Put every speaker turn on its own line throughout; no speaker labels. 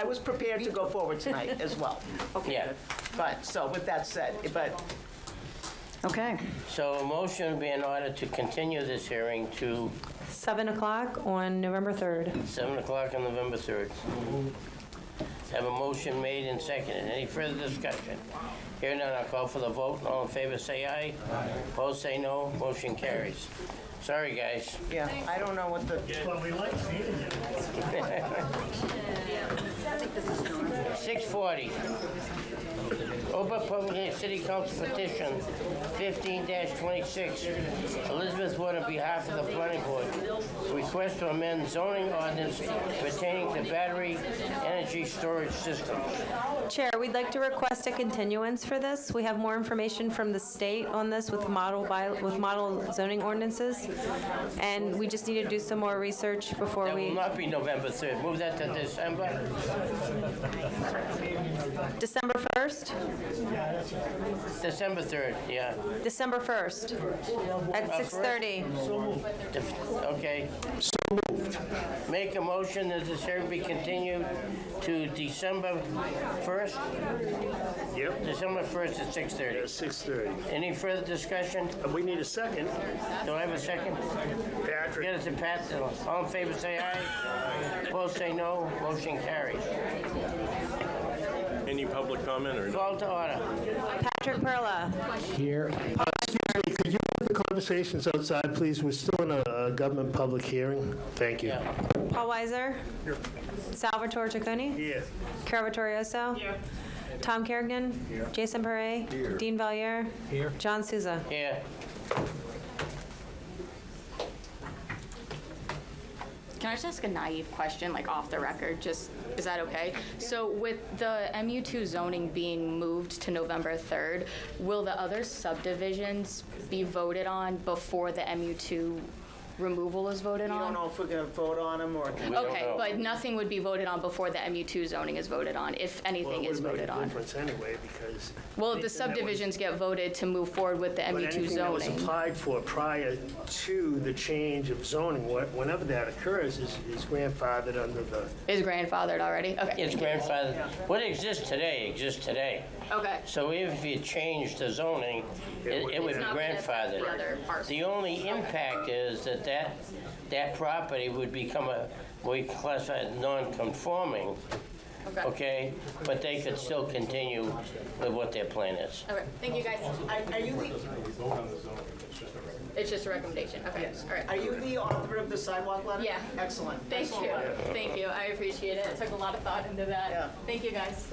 I was prepared to go forward tonight as well.
Yeah.
But, so with that said, but
Okay,
So a motion would be in order to continue this hearing to
7 o'clock on November 3rd.
7 o'clock on November 3rd. Have a motion made and seconded. Any further discussion? Hearing none, I'll call for the vote. All in favor, say aye. Aye. Opposed, say no. Motion carries. Sorry, guys.
Yeah, I don't know what the,
Well, we like seeing you.
640. Open public hearing, city council petition 15-26. Elizabeth Wood on behalf of the planning board. Request to amend zoning ordinance pertaining to battery energy storage systems.
Chair, we'd like to request a continuance for this. We have more information from the state on this with model by, with model zoning ordinances, and we just need to do some more research before
That will
we,
not be November 3rd. Move that to December.
December 1st?
December 3rd, yeah.
December 1st, at 6:30.
Def- Okay. Make a motion that this hearing be continued to December 1st,
Yep.
December 1st at 6:30.
Six thirty.
Any further discussion?
And we need a second.
Do I have a second?
Patrick,
Get it to Pat. All in favor, say aye. Opposed, say no. Motion carries.
Any public comment or?
Call to order.
Patrick Perla.
here. Uh, Excuse me, could you have the conversations outside, please? We're still in a uh, government public hearing. Thank you.
Yeah.
Paul Weiser. Salvatore Chaconi.
Yes.
Carol Vittorioso. Tom Kerrigan. Jason Parre. Dean Valier. John Souza.
Here.
Can I just ask a naive question, like off the record? Just, is that okay? So with the MU2 zoning being moved to November 3rd, will the other subdivisions be voted on before the MU2 removal is voted
you don't
on?
know if we're gonna vote on them or.
We don't
Okay,
know.
but nothing would be voted on before the MU2 zoning is voted on, if anything is voted
Well,
on.
it wouldn't make a difference anyway, because.
Well, if the
anything that was-
subdivisions get voted to move forward with the
But
MU2
anything that was
zoning.
applied for prior to the change of zoning, wh- whenever that occurs, is is grandfathered under the
Is grandfathered already? Okay,
It's grandfather. What exists today exists today.
okay.
So if you change the zoning, it it would be
It's not gonna affect the
grandfathered.
other parcel.
The only impact is that that, that property would become a, we classify as non-conforming,
Okay.
okay? But they could still continue with what their plan is.
Okay, thank you, guys. Are you the? It's just a recommendation, okay, all
Are
right.
you the author of the sidewalk letter?
Yeah.
Excellent.
Thank you, thank you, I appreciate it. Took a lot of thought into
Yeah.
that. Thank you, guys.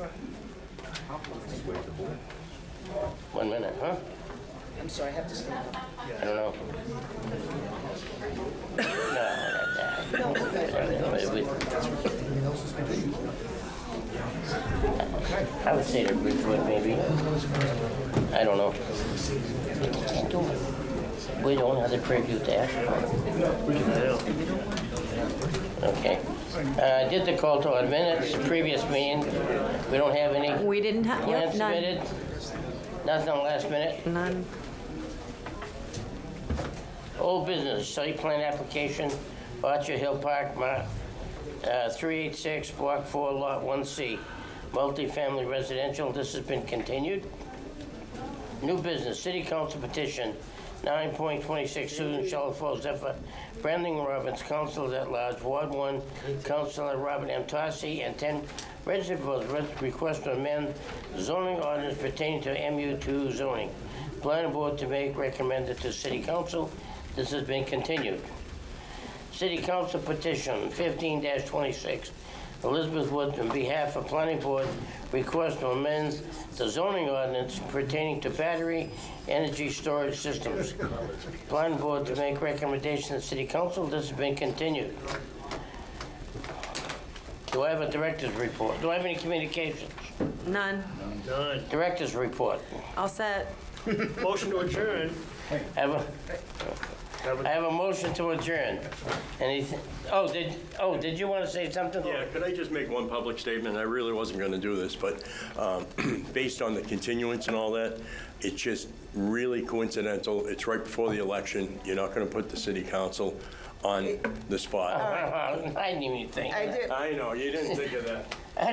One minute, huh?
I'm sorry, I have to stand up.
I don't know. No, not that. I would say to Bridgewood, maybe. I don't know. We don't have the preview to ask for. Okay. Uh, I did the call to our minutes, previous meeting. We don't have any
We didn't have,
plans
yep, none.
submitted. Nothing on last minute.
None.
Old business, site plan application, Archer Hill Park, map, uh, 386, Block 4, Lot 1C, multifamily residential. This has been continued. New business, city council petition, 9.26 Susan Shalfo Zephyr, Brandon Robbins, councilors at large, Ward 1, Councilor Robert M. Tossi, and 10 registered voters re- request to amend zoning ordinance pertaining to MU2 zoning. Planning board to make recommended to city council. This has been continued. City Council petition fifteen twenty-six. Elizabeth Wood, on behalf of Planning Board, requests to amend the zoning ordinance pertaining to battery energy storage systems. Planning Board to make recommendation to City Council. This has been continued. Do I have a director's report? Do I have any communications?
None.
none.
Director's report.
All set.
Motion to adjourn.
Have a, I have a motion to adjourn. Anything, oh, did, oh, did you want to say something?
Yeah, could I just make one public statement? I really wasn't going to do this, but um, based on the continuance and all that, it's just really coincidental. It's right before the election. You're not going to put the city council on the spot.
I didn't even think.
I did,
I know, you didn't think of that.